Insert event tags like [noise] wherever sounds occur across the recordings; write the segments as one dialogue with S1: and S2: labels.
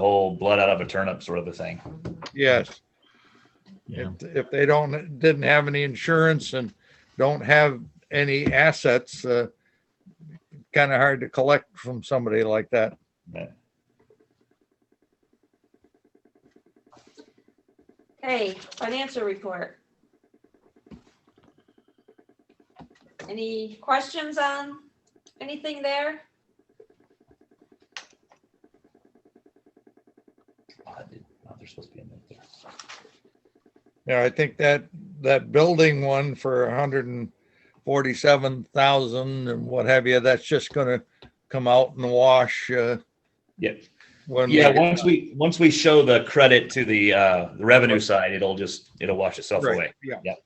S1: whole blood out of a turnip sort of a thing.
S2: Yes,
S3: Yeah.
S2: if, if they don't, didn't have any insurance and don't have any assets, uh, kind of hard to collect from somebody like that.
S4: Hey, financial report. Any questions on anything there?
S1: Oh, dude, oh, there's supposed to be a note there.
S2: Yeah, I think that, that building one for a hundred and forty-seven thousand and what have you, that's just gonna come out in the wash, uh,
S1: Yep.
S2: when.
S1: Yeah, once we, once we show the credit to the, uh, the revenue side, it'll just, it'll wash itself
S2: Right,
S1: away.
S2: Yeah.
S1: Yep.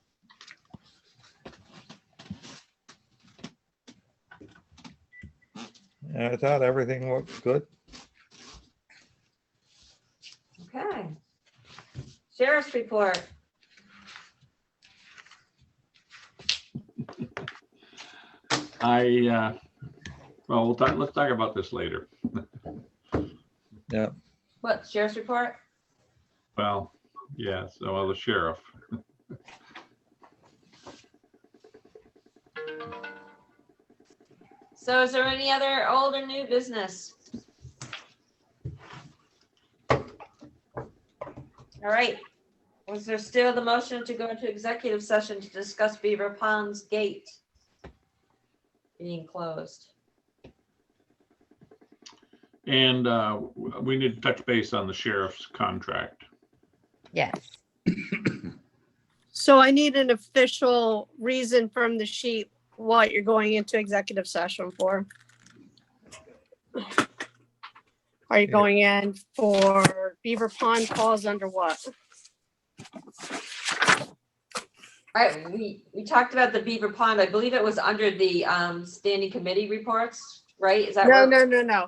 S2: Yeah, I thought everything looked good.
S4: Okay. Sheriff's report.
S3: I, uh, well, we'll talk, let's talk about this later.
S4: What, sheriff's report?
S3: Well, yeah, so well, the sheriff.
S4: So is there any other old or new business? All right. Was there still the motion to go into executive session to discuss Beaver Pond's gate being closed?
S3: And uh, w- we need to touch base on the sheriff's contract.
S5: Yes.
S6: So I need an official reason from the sheet what you're going into executive session for. Are you
S2: Yeah.
S6: going in for Beaver Pond falls under what?
S4: I, we, we talked about the Beaver Pond. I believe it was under the, um, standing committee reports, right? Is that?
S6: No,
S4: what-
S6: no, no, no.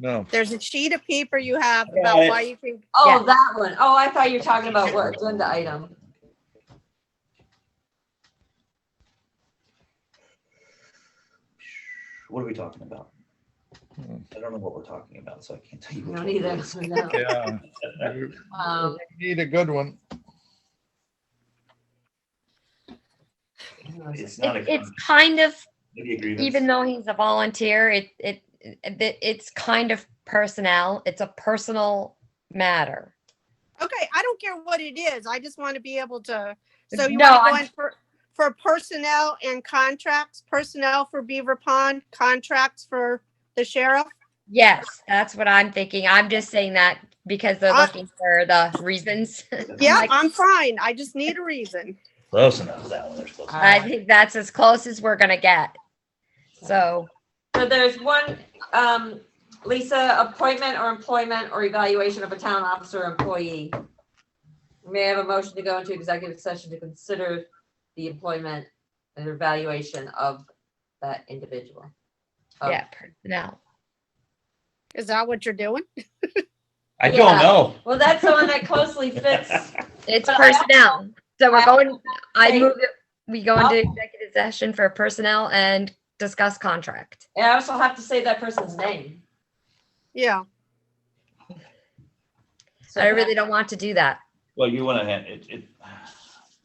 S2: No,
S6: There's a sheet of paper you have
S1: got
S6: about
S1: it.
S6: why you think,
S4: Oh,
S5: Yes.
S4: that one. Oh, I thought you were talking about what agenda item.
S1: What are we talking about?
S2: Hmm.
S1: I don't know what we're talking about, so I can't tell you.
S4: No, neither. [laughs] No.
S2: yeah. You
S4: Um,
S2: Need a good one.
S1: It's not
S5: It-
S1: a.
S5: It's kind of, even
S1: Even
S5: though he's a volunteer, it, it, it, it's kind of personnel. It's a personal matter.
S6: okay, I don't care what it is. I just want to be able to, so you
S5: No,
S6: want to go
S5: I'm-
S6: in for, for personnel and contracts, personnel for Beaver Pond, contracts for the sheriff?
S5: Yes, that's what I'm thinking. I'm just saying that because they're
S6: I-
S5: looking for the reasons. [laughs]
S6: Yeah,
S5: Like-
S6: I'm fine. I just need a reason.
S1: Close enough, that one, they're close. enough.
S4: Ah.
S5: I think that's as close as we're gonna get. So,
S4: So there's one, um, Lisa, appointment or employment or evaluation of a town officer or employee. May I have a motion to go into executive session to consider the employment and evaluation of that individual? Oh. Of-
S5: yeah, personnel.
S6: Is that what you're doing?
S1: I don't
S4: Yeah.
S1: know.
S4: Well, that's the one that closely fits.
S5: It's
S4: But I-
S5: personnel. So we're
S4: I-
S5: going, I
S4: Hey. Oh.
S5: move it, we go into executive session for personnel and discuss contract.
S4: And I also have to say that person's name.
S6: Yeah.
S4: So
S5: I really don't want to do that.
S1: Well, you want to hand it, it.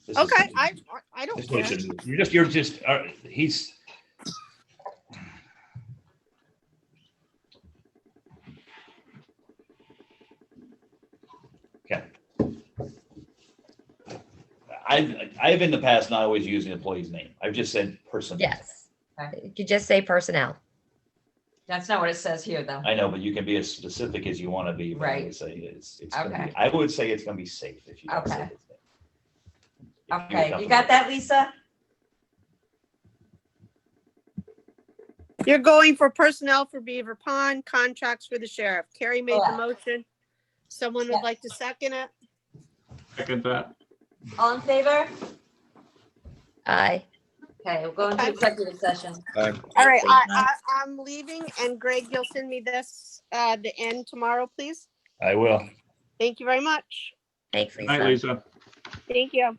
S1: this is-
S6: Okay. I I don't
S1: This is what it
S6: care.
S1: should be. You're just, you're just, uh, he's. Okay. I've, I've in the past not always used an employee's name. I've just said person.
S5: Yes.
S4: Okay.
S5: You could just say personnel.
S4: That's not what it says here, though.
S1: I know, but you can be as specific as you want to be. but I
S4: Right.
S1: would Say it's, it's, gonna
S4: Okay.
S1: be- I would say it's gonna be safe if you. don't say
S4: Okay.
S1: his name. If you're
S4: Okay, you
S1: comfortable.
S4: got that, Lisa?
S6: You're going for personnel for Beaver Pond, contracts for the sheriff. Carrie made the
S4: Correct.
S6: motion. Someone
S4: Yeah.
S6: would like to second it?
S3: Second that.
S4: All in favor?
S5: Aye.
S4: Okay, we'll go into
S6: Okay.
S4: executive session.
S6: All right, I,
S5: Thank you.
S6: I, I'm leaving and Greg, you'll send me this, uh, the end tomorrow, please.
S1: I will.
S6: Thank you very much.
S5: Thanks,
S3: Night,
S5: Lisa.
S3: Lisa.
S6: Thank you.